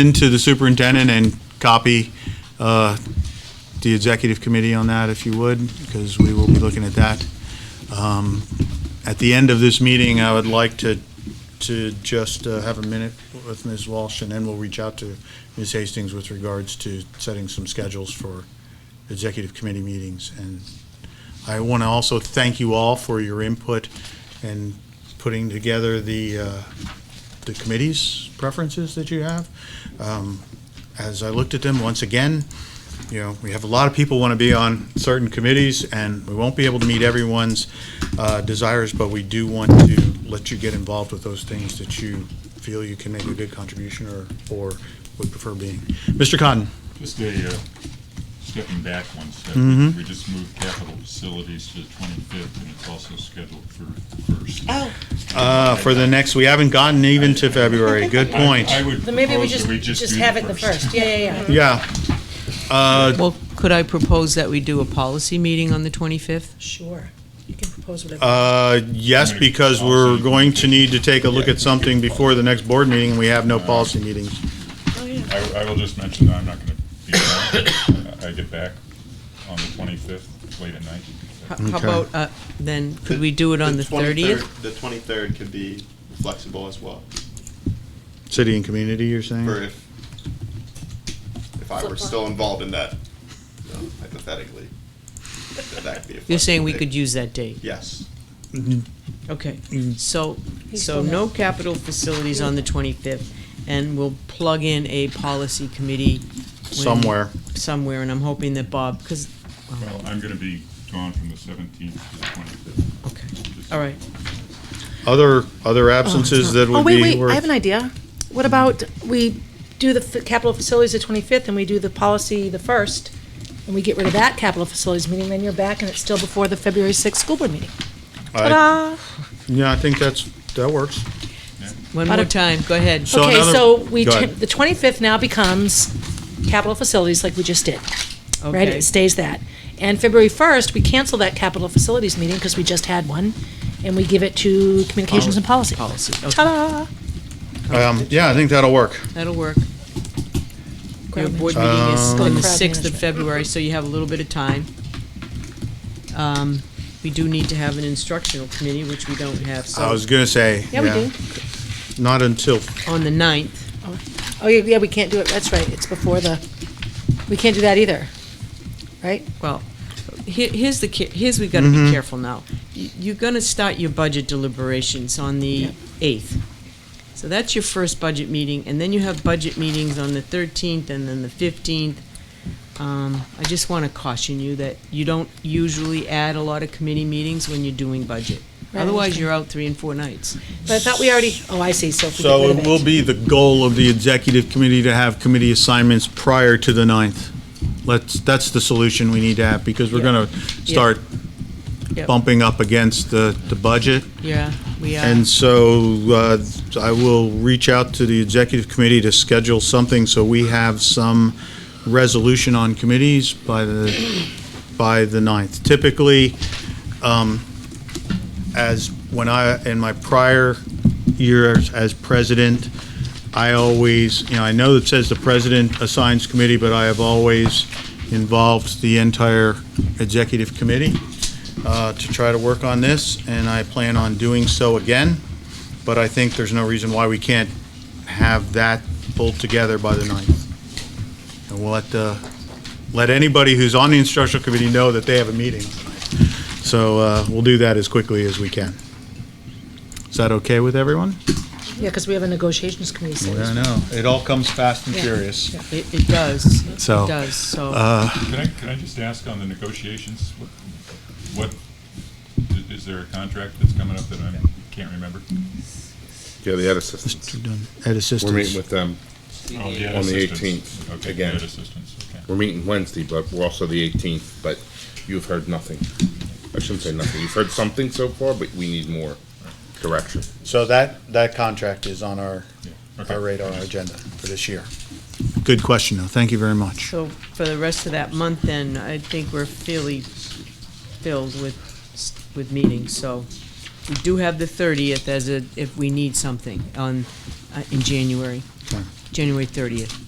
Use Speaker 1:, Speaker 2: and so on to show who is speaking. Speaker 1: into the superintendent and copy uh, the executive committee on that, if you would, because we will be looking at that. Um, At the end of this meeting, I would like to, to just uh, have a minute with Ms. Walsh, and then we'll reach out to Ms. Hastings with regards to setting some schedules for executive committee meetings. And I want to also thank you all for your input and putting together the, uh, the committee's preferences that you have. Um, As I looked at them, once again, you know, we have a lot of people want to be on certain committees, and we won't be able to meet everyone's uh, desires, but we do want to let you get involved with those things that you feel you can make a good contribution or, or would prefer being. Mr. Cotton?
Speaker 2: Just a, uh, stepping back one step,
Speaker 1: Mhm.
Speaker 2: we just moved capital facilities to the 25th, and it's also scheduled for the first.
Speaker 3: Oh,
Speaker 1: Uh, For the next, we haven't gotten even to February. Good
Speaker 2: I-
Speaker 1: point.
Speaker 2: I would
Speaker 3: then maybe we
Speaker 2: propose
Speaker 3: just,
Speaker 2: that we
Speaker 3: just
Speaker 2: do
Speaker 3: have it the first. Yeah, yeah, yeah.
Speaker 1: Yeah. Uh,
Speaker 4: Well, could I propose that we do a policy meeting on the 25th?
Speaker 3: Sure. You can propose whatever.
Speaker 1: Uh, Yes, because we're going to need to take a look at something before the next board meeting, and we have no policy meetings.
Speaker 3: Oh, yeah.
Speaker 2: I, I will just mention that I'm not going to be around. I get back on the 25th, late at night.
Speaker 3: Oh.
Speaker 4: How
Speaker 1: Okay.
Speaker 4: how about, uh, then, could we do it on the 30th?
Speaker 5: 23rd The twenty-third could be flexible as well,
Speaker 1: City and community, you're
Speaker 5: for
Speaker 1: saying?
Speaker 5: if, if I were still involved in that, you know, hypothetically, that that could be a
Speaker 4: You're saying we
Speaker 5: flexible
Speaker 4: could
Speaker 5: date.
Speaker 4: use that date?
Speaker 5: Yes,
Speaker 4: Okay,
Speaker 1: Mm.
Speaker 4: so,
Speaker 3: He's
Speaker 4: so
Speaker 3: still
Speaker 4: no capital facilities on the 25th, and we'll plug in a policy committee. when-
Speaker 1: Somewhere.
Speaker 4: Somewhere, and I'm hoping that Bob, because,
Speaker 2: Well, I'm going to be gone from the 17th to the 25th.
Speaker 4: okay, all right.
Speaker 1: Other, other absences that
Speaker 3: Oh,
Speaker 1: would
Speaker 3: wait,
Speaker 1: be
Speaker 3: wait, I
Speaker 1: worth,
Speaker 3: have an idea. What about we do the f- capital facilities the 25th and we do the policy the 1st? And we get rid of that capital facilities meeting, then you're back and it's still before the February 6th school board meeting.
Speaker 1: I-
Speaker 3: Ta-da!
Speaker 1: yeah, I think that's, that works.
Speaker 4: One
Speaker 3: But
Speaker 4: more
Speaker 3: if-
Speaker 4: time, go ahead.
Speaker 1: So
Speaker 3: Okay,
Speaker 1: another-
Speaker 3: so we,
Speaker 1: Go
Speaker 3: ta-
Speaker 1: ahead.
Speaker 3: the 25th now becomes capital facilities like we just did, right?
Speaker 4: Okay.
Speaker 3: It stays that. And February 1st, we cancel that capital facilities meeting because we just had one and we give it to communications and policy.
Speaker 4: Policy, okay,
Speaker 3: Ta-da! Oh,
Speaker 1: Um, Yeah, I think that'll work.
Speaker 4: that'll work. Your
Speaker 3: Crowd
Speaker 4: board
Speaker 3: management.
Speaker 4: meeting is
Speaker 3: Um,
Speaker 4: on the
Speaker 3: Crowd
Speaker 4: 6th of
Speaker 3: management.
Speaker 4: February, so you have a little bit of time. Um, We do need to have an instructional committee, which we don't have,
Speaker 1: I
Speaker 4: so,
Speaker 1: was gonna say.
Speaker 3: Oh. Yeah, we do.
Speaker 1: Not until,
Speaker 4: on the 9th.
Speaker 3: Oh, yeah, yeah, we can't do it, that's right, it's before the, we can't do that either, right?
Speaker 4: Well, here, here's the, ca- here's, we gotta
Speaker 1: Mm-hmm.
Speaker 4: be careful now. You- You're gonna start your budget deliberations on the
Speaker 3: Yep.
Speaker 4: 8th. So that's your first budget meeting, and then you have budget meetings on the 13th and then the 15th. Um, I just wanna caution you that you don't usually add a lot of committee meetings when you're doing budget.
Speaker 3: Right, I
Speaker 4: Otherwise,
Speaker 3: understand.
Speaker 4: you're out three and four nights.
Speaker 3: But I thought we already, oh, I see, so if we
Speaker 1: so
Speaker 3: get rid
Speaker 1: it
Speaker 3: of
Speaker 1: will
Speaker 3: it.
Speaker 1: be the goal of the executive committee to have committee assignments prior to the 9th. Let's, that's the solution we need to have, because we're
Speaker 4: Yeah.
Speaker 1: gonna
Speaker 4: Yeah.
Speaker 1: start
Speaker 4: Yep.
Speaker 1: bumping up against the, the budget.
Speaker 4: Yeah, we are.
Speaker 1: And so uh, I will reach out to the executive committee to schedule something so we have some resolution on committees by the, by the 9th. Typically, um, as when I, in my prior years as president, I always, you know, I know it says the president assigns committee, but I have always involved the entire executive committee uh, to try to work on this, and I plan on doing so again. But I think there's no reason why we can't have that pulled together by the 9th. And we'll let, uh, let anybody who's on the instructional committee know that they have a meeting. So uh, we'll do that as quickly as we can. Is that okay with everyone?
Speaker 3: Yeah, because we have a negotiations committee, so it's-
Speaker 1: know. It all comes fast and
Speaker 3: Yeah.
Speaker 1: furious.
Speaker 4: It, it does, it
Speaker 1: So, uh,
Speaker 4: does, so.
Speaker 2: Can I, can I just ask on the negotiations, what- what, i- is there a contract that's coming up that I can't remember?
Speaker 6: Yeah, the Ed assistants.
Speaker 1: Mr. Dunn, Ed
Speaker 6: We're meeting
Speaker 1: Assistance.
Speaker 6: with um, them.
Speaker 2: Oh, yeah,
Speaker 6: On the
Speaker 2: assistance.
Speaker 6: 18th,
Speaker 2: Okay,
Speaker 6: again.
Speaker 2: debt assistance, okay.
Speaker 6: We're meeting Wednesday, but we're also the 18th, but you've heard nothing. I shouldn't say nothing. You've heard something so far, but we need more direction.
Speaker 1: So that, that contract is on our,
Speaker 2: Okay.
Speaker 1: our radar agenda for this year. Good question, though. Thank you very much.
Speaker 4: So for the rest of that month, then, I think we're fairly filled with, s- with meetings, so we do have the 30th as a, if we need something on, uh, in January. January 30th.